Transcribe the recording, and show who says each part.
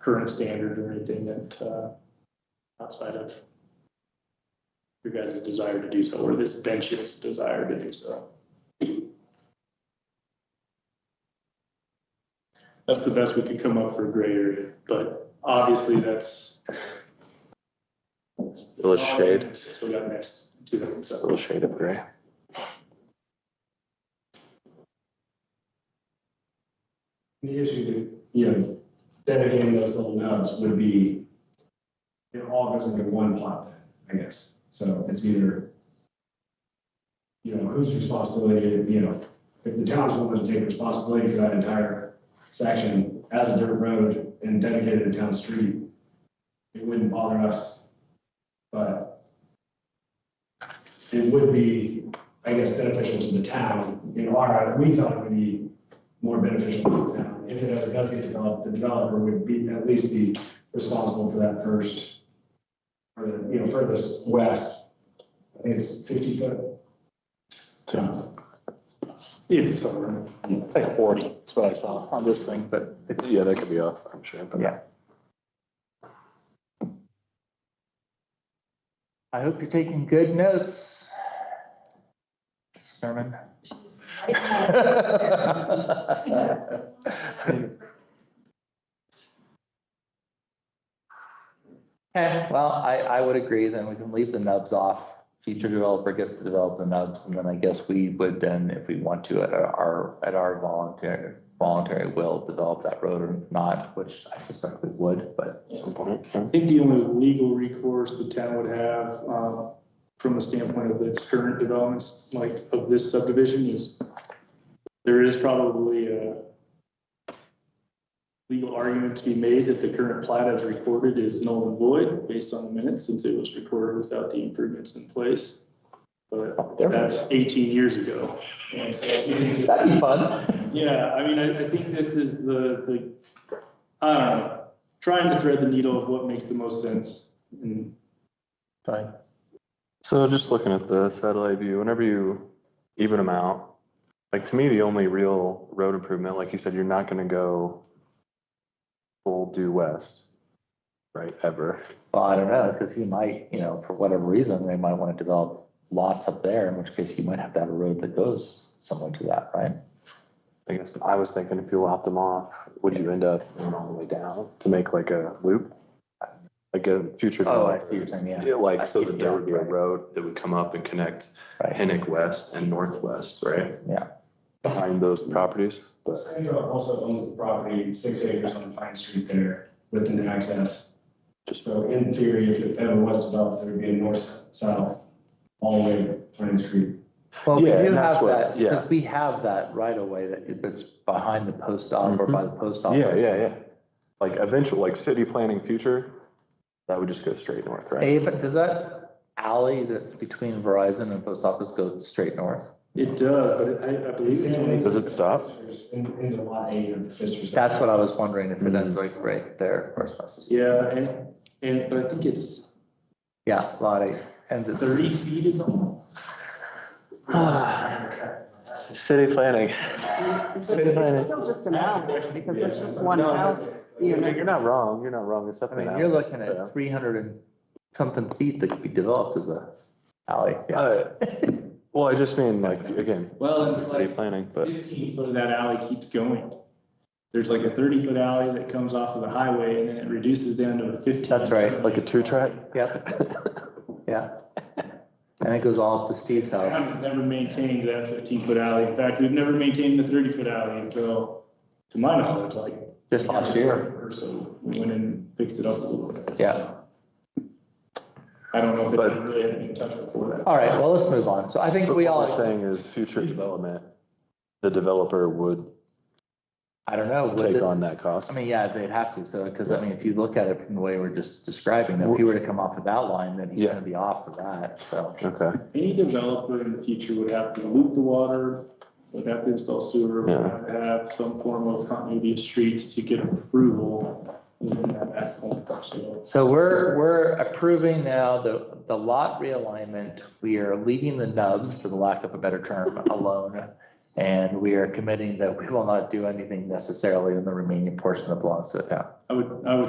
Speaker 1: current standard or anything that, uh, outside of your guys' desire to do so, or this bench's desire to do so. That's the best we could come up for a grade area, but obviously that's.
Speaker 2: A little shade.
Speaker 1: Still got next to them,
Speaker 2: It's a
Speaker 1: so.
Speaker 2: little shade of gray.
Speaker 3: The issue, that, you know, dedicating those little nubs would be, it all goes into one pot then, I guess. So it's either, you know, whose responsibility, you know, if the town's willing to take responsibility for that entire section as a dirt road and dedicated to town street, it wouldn't bother us. But it would be, I guess, beneficial to the town in our, we thought it would be more beneficial to the town. If it ever does get developed, the developer would be, at least be responsible for that first, or the, you know, furthest west. I think it's fifty foot.
Speaker 1: It's somewhere.
Speaker 4: Like forty, that's what I saw on this thing, but
Speaker 2: Yeah, that could be off, I'm sure. but-
Speaker 4: Yeah. I hope you're taking good notes. Sermon. Okay, well, I, I would agree, then we can leave the nubs off. Future developer gets to develop the nubs, and then I guess we would then, if we want to, at our, at our voluntary, voluntary will, develop that road or not, which I suspect we would, but
Speaker 2: At some point, yeah.
Speaker 1: I think the only legal recourse the town would have, um, from the standpoint of its current developments, like of this subdivision is there is probably a legal argument to be made that the current plat as recorded is null and void based on the minutes since it was recorded without the improvements in place. But
Speaker 2: There we
Speaker 1: that's eighteen years ago. And so I think it's-
Speaker 4: that'd be fun.
Speaker 1: yeah, I mean, I, I think this is the, the, I don't know, trying to thread the needle of what makes the most sense. And
Speaker 4: Fine.
Speaker 2: So just looking at the satellite view, whenever you even them out, like to me, the only real road improvement, like you said, you're not gonna go full due west, right, ever.
Speaker 4: Well, I don't know, because you might, you know, for whatever reason, they might want to develop lots up there, in which case you might have to have a road that goes somewhere to that, right?
Speaker 2: I guess I was thinking if you lopped them off, would you end up going all the way down to make like a loop? Like a future.
Speaker 4: Oh, I see what you're saying, yeah,
Speaker 2: Yeah, like so
Speaker 4: I see,
Speaker 2: that there would be a
Speaker 4: yeah, right.
Speaker 2: road that would come up and connect
Speaker 4: right,
Speaker 2: Hennick West and Northwest, right?
Speaker 4: yeah.
Speaker 2: Behind those properties, but
Speaker 3: Sandra also owns the property, six acres on Pine Street there with an access.
Speaker 2: Just-
Speaker 3: So in theory, if it ever was developed, there would be a north, south, all the way to Pine Street.
Speaker 4: Well, we
Speaker 2: Yeah,
Speaker 4: do
Speaker 2: and that's
Speaker 4: have
Speaker 2: what-
Speaker 4: that,
Speaker 2: yeah.
Speaker 4: because we have that right away that it was behind the post office or by the post office.
Speaker 2: Yeah, yeah, yeah. Like eventual, like city planning future, that would just go straight north, right?
Speaker 4: Hey, but does that alley that's between Verizon and post office go straight north?
Speaker 1: it does, but it- I, I believe it's only,
Speaker 2: Does it stop?
Speaker 3: In- Into lot eight of the Fister's.
Speaker 4: That's what I was wondering, if it ends like right there, where's West?
Speaker 1: yeah, and, and, but I think it's
Speaker 4: Yeah, lot eight, ends at.
Speaker 1: thirty feet is all.
Speaker 2: City planning.
Speaker 5: But It's still just an alley, because it's just one
Speaker 2: No,
Speaker 5: house, you know.
Speaker 2: You're not wrong, you're not wrong, it's
Speaker 4: I
Speaker 2: definitely.
Speaker 4: mean,
Speaker 2: an
Speaker 4: you're
Speaker 2: alley.
Speaker 4: looking
Speaker 2: Yeah.
Speaker 4: at three hundred and something feet that could be developed as a alley. Oh,
Speaker 2: Uh, Well, I just mean like, again,
Speaker 1: Well, it's
Speaker 2: city
Speaker 1: like
Speaker 2: planning, but
Speaker 1: fifteen foot of that alley keeps going. There's like a thirty foot alley that comes off of the highway and then it reduces down to a fifteen.
Speaker 4: That's right,
Speaker 2: like a two track?
Speaker 4: Yep, yeah. And it goes all up to Steve's house.
Speaker 1: I've never maintained that fifteen foot alley. In fact, we've never maintained the thirty foot alley until, to my knowledge, like.
Speaker 4: Just last year.
Speaker 1: Or so, we went and fixed it up a little bit.
Speaker 4: Yeah.
Speaker 1: I don't know if
Speaker 2: But-
Speaker 1: it really had been in touch before that.
Speaker 4: All right, well, let's move on. So I think
Speaker 2: But
Speaker 4: we
Speaker 2: what we're
Speaker 4: all,
Speaker 2: Saying is future development, the developer would
Speaker 4: I don't know. would
Speaker 2: take
Speaker 4: it-
Speaker 2: on that cost.
Speaker 4: I mean, yeah, they'd have to, so, because I mean, if you look at it from the way we're just describing, if he were to come off of that line, then he's
Speaker 2: Yeah.
Speaker 4: gonna be off of that, so.
Speaker 2: Okay,
Speaker 1: Any developer in the future would have to loop the water, would have to install sewer, would
Speaker 2: Yeah.
Speaker 1: have to have some form of continuity of streets to get approval. even at that point. So
Speaker 4: So we're, we're approving now the, the lot realignment. We are leaving the nubs, for the lack of a better term, alone. And we are committing that we will not do anything necessarily in the remaining portion that belongs to the town.
Speaker 1: I would, I would